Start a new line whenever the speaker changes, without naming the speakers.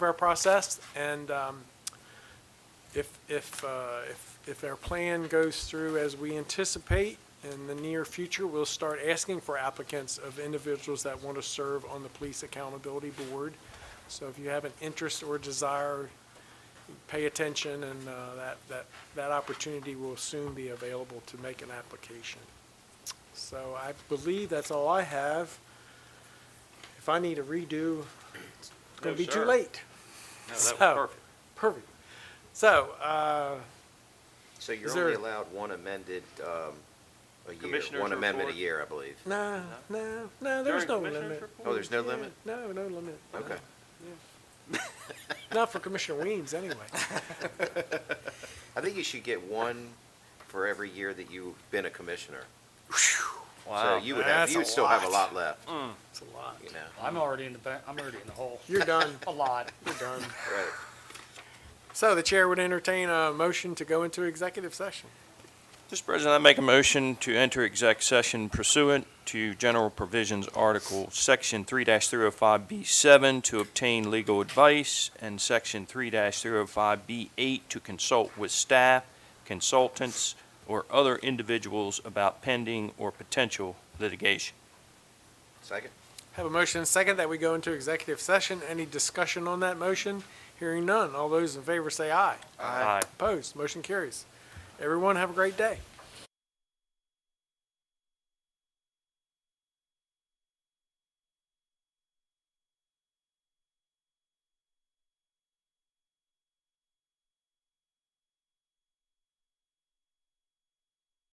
entire process, and um, if, if, uh, if, if our plan goes through as we anticipate in the near future, we'll start asking for applicants of individuals that want to serve on the Police Accountability Board. So if you have an interest or desire, pay attention, and uh, that, that, that opportunity will soon be available to make an application. So I believe that's all I have. If I need a redo, it's
No,
going to be too
sir.
late.
No, that was
So-
perfect.
Perfect. So, uh,
So you're
Is there-
only allowed one amended, um, a year,
Commissioners
one amendment a
report.
year, I believe.
no, no, no, there's
During
no
commissioners
limit.
report?
Oh, there's no
Yeah,
limit?
No, no limit.
Okay.
Not for Commissioner Weems, anyway.
I think you should get one for every year that you've been a commissioner. So
Wow.
you would have,
That's
you would
a
still have a
lot.
lot left,
It's a lot.
you know,
I'm already in the, ba- I'm already in the hole.
You're done,
A lot.
you're done.
right?
So the chair would entertain a motion to go into executive session.
Mr. President, I make a motion to enter exec session pursuant to General Provisions Article, Section 3-305B7 to obtain legal advice, and Section 3-305B8 to consult with staff, consultants, or other individuals about pending or potential litigation.
Second?
Have a motion and second that we go into executive session. Any discussion on that motion? Hearing none. All those in favor say aye.
Aye.
Opposed? Motion carries. Everyone have a great day.